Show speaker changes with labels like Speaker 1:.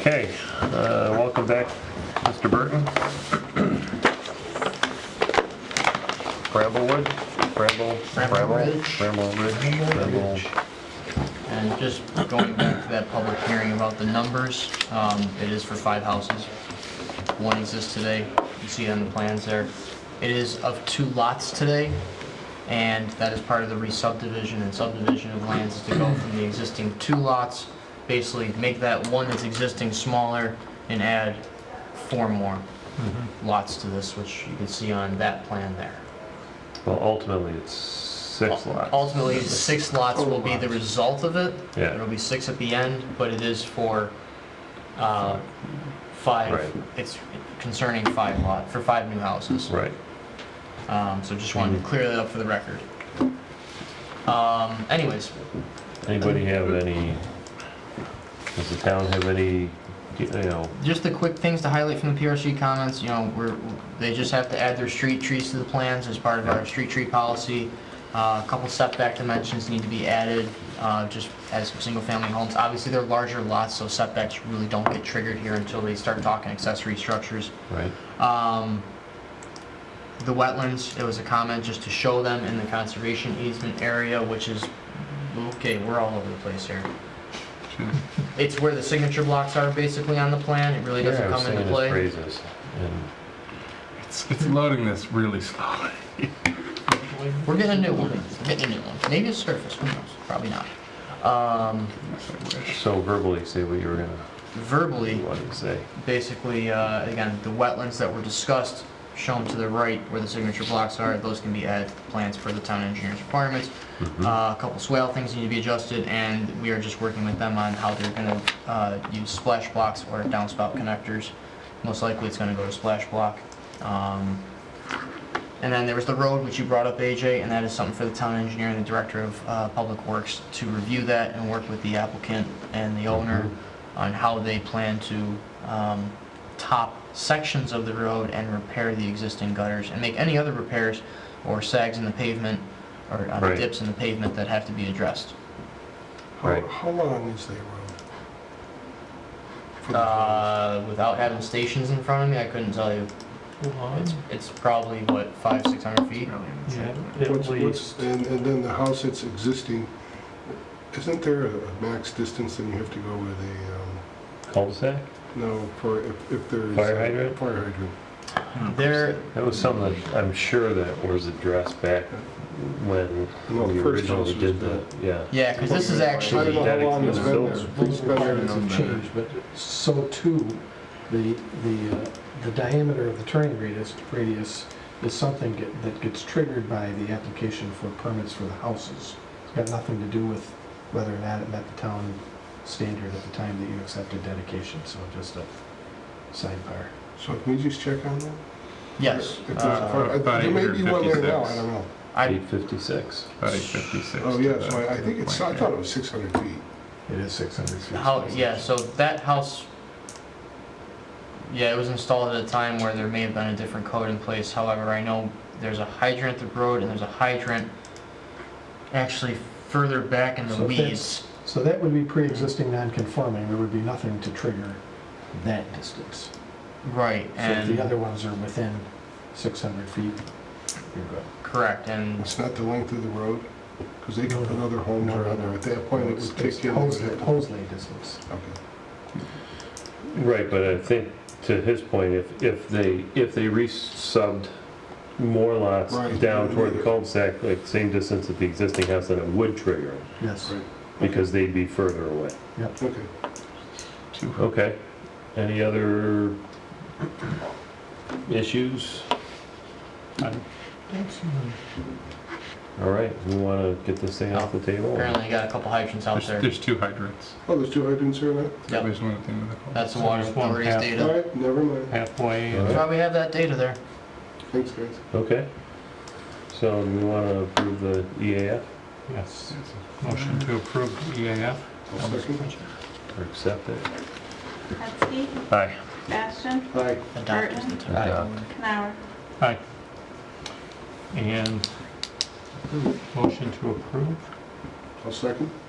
Speaker 1: Okay, uh, welcome back, Mr. Burton. Bramblewood, Bramble, Bramble,
Speaker 2: Ridge.
Speaker 1: Bramble Ridge, Bramble.
Speaker 2: And just going back to that public hearing about the numbers, um, it is for five houses. One exists today, you see it on the plans there. It is of two lots today, and that is part of the re-subdivision and subdivision of lands is to go from the existing two lots, basically make that one that's existing smaller and add four more lots to this, which you can see on that plan there.
Speaker 1: Well, ultimately, it's six lots.
Speaker 2: Ultimately, six lots will be the result of it.
Speaker 1: Yeah.
Speaker 2: It'll be six at the end, but it is for, uh,
Speaker 1: Right.
Speaker 2: five, it's concerning five lot, for five new houses.
Speaker 1: Right,
Speaker 2: Um, so just wanted to clear that up for the record. Um, anyways,
Speaker 1: anybody have any, does the town have any, you know,
Speaker 2: just the quick things to highlight from the PRC comments, you know, we're, they just have to add their street trees to the plans as part of our street tree policy. Uh, A couple setback dimensions need to be added, uh, just as single-family homes. Obviously, they're larger lots, so setbacks really don't get triggered here until they start talking accessory structures.
Speaker 1: right?
Speaker 2: Um, The wetlands, it was a comment just to show them in the conservation easement area, which is, okay, we're all over the place here. It's where the signature blocks are basically on the plan, it really doesn't
Speaker 1: Yeah, I was
Speaker 2: come into
Speaker 1: singing his
Speaker 2: play.
Speaker 1: Praises, and
Speaker 3: It's, it's loading this really slowly.
Speaker 2: We're getting a new one, We're getting a new one. Maybe it's surface, who knows? Probably not. Um,
Speaker 3: Yes, I wish.
Speaker 1: so verbally say what you were gonna,
Speaker 2: verbally,
Speaker 1: what to say.
Speaker 2: basically, uh, again, the wetlands that were discussed, shown to the right where the signature blocks are, those can be added to the plans per the town engineer's requirements. Uh, a couple swale things need to be adjusted, and we are just working with them on how they're gonna, uh, use splash blocks or downspout connectors. Most likely, it's gonna go to splash block. Um, And then there was the road, which you brought up, AJ, and that is something for the town engineer and the director of uh, public works to review that and work with the applicant and the owner on how they plan to um, top sections of the road and repair the existing gutters and make any other repairs or sags in the pavement or uh,
Speaker 1: Right.
Speaker 2: dips in the pavement that have to be addressed.
Speaker 1: Right.
Speaker 4: How, how long is that road? For the-
Speaker 2: Uh, Without having stations in front of me, I couldn't tell you. It's it's probably, what, five, 600 feet?
Speaker 4: What's, what's, and, and then the house that's existing, isn't there a max distance and you have to go with a, um,
Speaker 1: Cul-de-sac?
Speaker 4: no, for, if, if there is.
Speaker 1: Fire hydrant?
Speaker 4: Fire hydrant.
Speaker 2: There,
Speaker 1: That was something that I'm sure that was addressed back when
Speaker 4: Well,
Speaker 1: we
Speaker 4: the first house
Speaker 1: originally
Speaker 4: was
Speaker 1: did the,
Speaker 4: built.
Speaker 1: yeah.
Speaker 2: yeah, because this is
Speaker 4: I don't
Speaker 2: actually,
Speaker 4: know how long it's been there. It's been there
Speaker 5: Requirements have changed, but so too, the, the, uh, the diameter of the turning radius, radius is something get- that gets triggered by the application for permits for the houses. It's got nothing to do with whether or not it met the town standard at the time that you accepted dedication, so just a sidebar.
Speaker 4: So can we just check on that?
Speaker 2: yes.
Speaker 4: If there's a
Speaker 2: uh,
Speaker 4: fire-
Speaker 3: about
Speaker 4: There may be one there now,
Speaker 3: 856.
Speaker 4: I don't know.
Speaker 2: I,
Speaker 1: Eight fifty-six.
Speaker 3: About 856.
Speaker 4: Oh, yeah, so I, I
Speaker 3: to
Speaker 4: think
Speaker 3: the
Speaker 4: it's,
Speaker 3: point,
Speaker 4: I thought it was six hundred feet.
Speaker 5: It is 600 feet.
Speaker 2: how, yeah, so that house, yeah, it was installed at a time where there may have been a different code in place, however, I know there's a hydrant at the road, and there's a hydrant actually further back in the
Speaker 5: So that's-
Speaker 2: weeds.
Speaker 5: So that would be pre-existing non-conforming, there would be nothing to trigger that distance.
Speaker 2: Right,
Speaker 5: So if the
Speaker 2: and,
Speaker 5: other ones are within 600 feet, you're good.
Speaker 2: correct, and,
Speaker 4: It's not the length of the road, because they could put other homes
Speaker 5: No, no,
Speaker 4: around there. At that point, it
Speaker 5: It's-
Speaker 4: would
Speaker 5: it's
Speaker 4: kick in. it would
Speaker 5: Hosley
Speaker 4: have to-
Speaker 5: Hosley distance.
Speaker 4: Okay.
Speaker 1: Right, but I think to his point, if, if they, if they re-subbed more lots
Speaker 4: Right.
Speaker 1: down toward the cul-de-sac, like same distance as the existing house, then it would trigger them
Speaker 5: Yes.
Speaker 4: Right.
Speaker 1: because they'd be further away.
Speaker 5: Yep.
Speaker 4: Okay.
Speaker 3: Two-
Speaker 1: Okay, any other issues? All right, we want to get this thing off the table?
Speaker 2: apparently I got a couple hydrants out
Speaker 3: There's,
Speaker 2: there.
Speaker 3: there's two hydrants.
Speaker 4: Oh, there's two hydrants here now?
Speaker 2: Yep.
Speaker 3: There's one at the end of the hall.
Speaker 2: That's the water
Speaker 6: There's one
Speaker 2: authority's
Speaker 6: path.
Speaker 4: All
Speaker 2: data,
Speaker 4: right, never mind.
Speaker 6: halfway
Speaker 1: All
Speaker 6: and
Speaker 2: that's why we have that data there.
Speaker 4: Thanks, guys.
Speaker 1: Okay, so we want to approve the E EAF
Speaker 6: yes, motion to approve EAF.
Speaker 4: I'll second.
Speaker 1: or accept it?
Speaker 7: Hetzke,
Speaker 1: Aye.
Speaker 7: Bastian,
Speaker 4: Aye.
Speaker 2: Adopt is the term.
Speaker 1: Adopt.
Speaker 7: Canower.
Speaker 6: Aye. And motion to approve.
Speaker 4: I'll second.